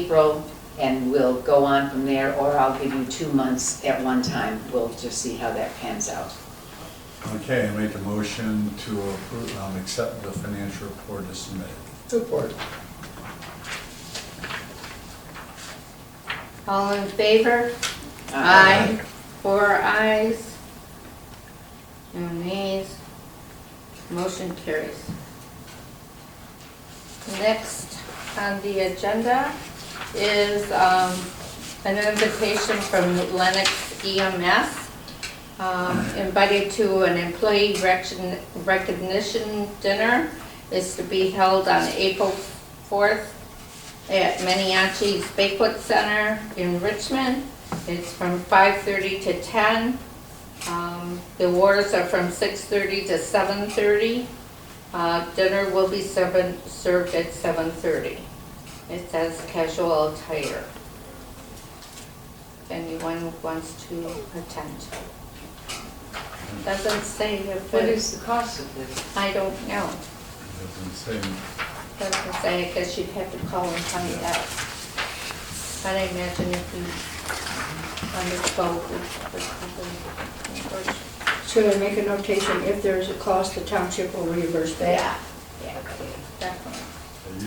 April, and we'll go on from there, or I'll give you two months at one time. We'll just see how that pans out. Okay, I make a motion to approve, um, accept the financial report as submitted. Support. All in favor? Aye. Four ayes. No nays. Motion carries. Next on the agenda is um, an invitation from Lennox EMS, um, invited to an employee recogni- recognition dinner. is to be held on April 4th at Maniachi's Banquet Center in Richmond. It's from 5:30 to 10. Um, The awards are from 6:30 to 7:30. Uh, Dinner will be seven- served at 7:30. It says casual attire. If anyone wants to attend. Doesn't say if What it, is the cost of this? I don't know. Doesn't say, That's what I say, I guess you'd have to call and find out. I imagine if you underspoke with the company. Should I make a notation, if there's a cost, the township will reimburse that? Yeah, yeah, definitely.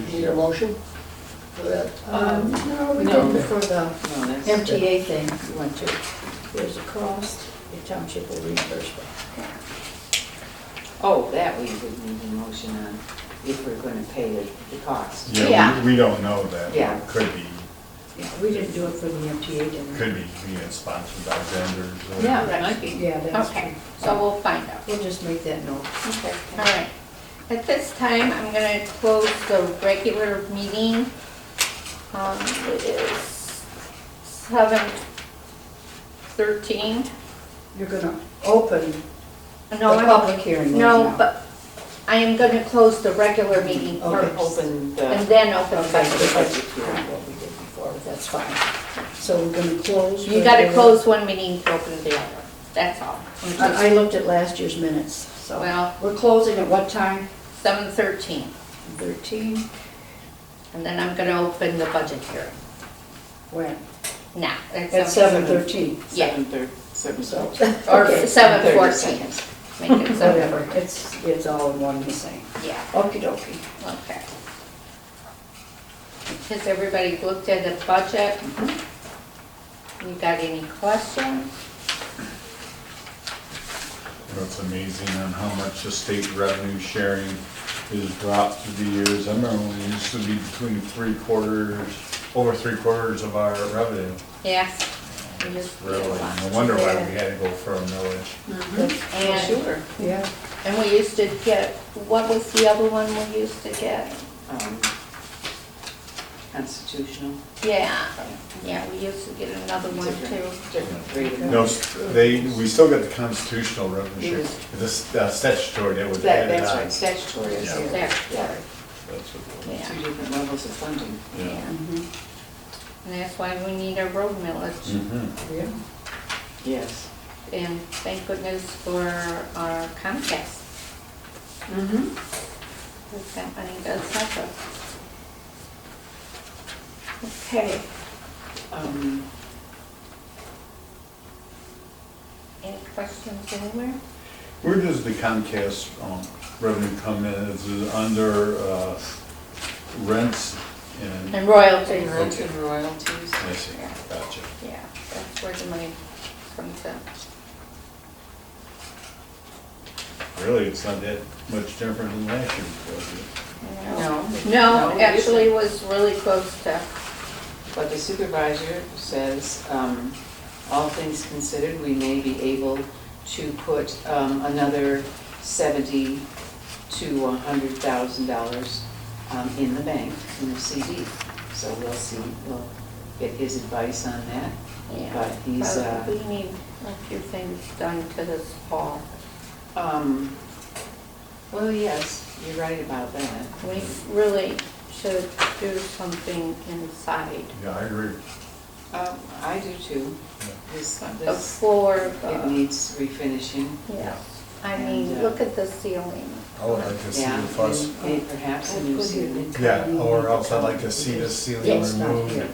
I Need a usually, motion for that? Um, no, we No. did it for the No, Oh, that's- MTA thing we went to. If There's a cost, the township will reimburse that. Oh, that we would need a motion on, if we're gonna pay the, the cost. yeah, we- we don't know that. Yeah. Could be, Yeah, we didn't do it for the MTA dinner. could be, you know, sponsored by vendors or. Yeah, that might be. Yeah, that's true. Okay, so we'll find out. We'll just make that note. Okay, all right. At this time, I'm gonna close the regular meeting. Um, it is seven thirteen. You're gonna open No, the I'm, public hearing right now. no, but I am gonna close the regular meeting Or Okay. first. open And the, then open Okay, budget. the budget hearing, what we did before, that's fine. So we're gonna close. You gotta regular- close one meeting to open the other, that's all. I I looked at last year's minutes, so. Well- We're closing at what time? Seven thirteen, Thirteen. and then I'm gonna open the budget hearing. When? Now, At at seven seven. thirteen, Yeah. seven thirty, seven so. thirty. Or okay, seven 30 fourteen. seconds. Make it seven, Whatever, it's, it's all in one and the same. yeah, Okey dokey. okay. Has everybody looked at the budget? You got any questions? You know, It's amazing on how much the state revenue sharing has dropped through the years. I remember when it used to be between three quarters, over three quarters of our revenue. Yes? We just- Really, no wonder why we had to go uh, for a millage. Mhm. And- Sure. Yeah, And we used to get, what was the other one we used to get? Um, Constitutional, Yeah, yeah, we used to get another one too. different, different rate of- No, they, we still got the constitutional revenue It share, was- this uh, statutory that was Mm-hmm. That, added that's on. right, statutory is Yeah. here. There. Yeah, That's what it was. Yeah, two different levels of funding. yeah. And Mm-hmm. that's why we need a road millage. Mhm. yeah. Yes. And thank goodness for our Comcast, Mm-hmm. because that money does help us. Okay, Um, any questions anywhere? Where does the Comcast um, revenue come in? Is it under uh, rents and, And royalties. royalty- royalties. I see, gotcha. Yeah, that's where the money comes in. Really, it's not that much different than last year, was it? No. No, it actually it was really close to, isn't. But the supervisor says, um, all things considered, we may be able to put, um, another seventy to a hundred thousand dollars, um, in the bank, in a CD. So we'll see, we'll get his advice on that, yeah. but he's, uh. But We need a few things done to this fall. Um, well, yes, you're right about that. We really should do something inside Yeah, I agree. Um, I do too. This, this, Uh, before, it the- needs refinishing. yes. I mean, And, uh, look at the ceiling. I would like to see Yeah, the fuss. and- and perhaps a new ceiling. Yeah, or else I'd like to see the ceiling Yes, not removed. here.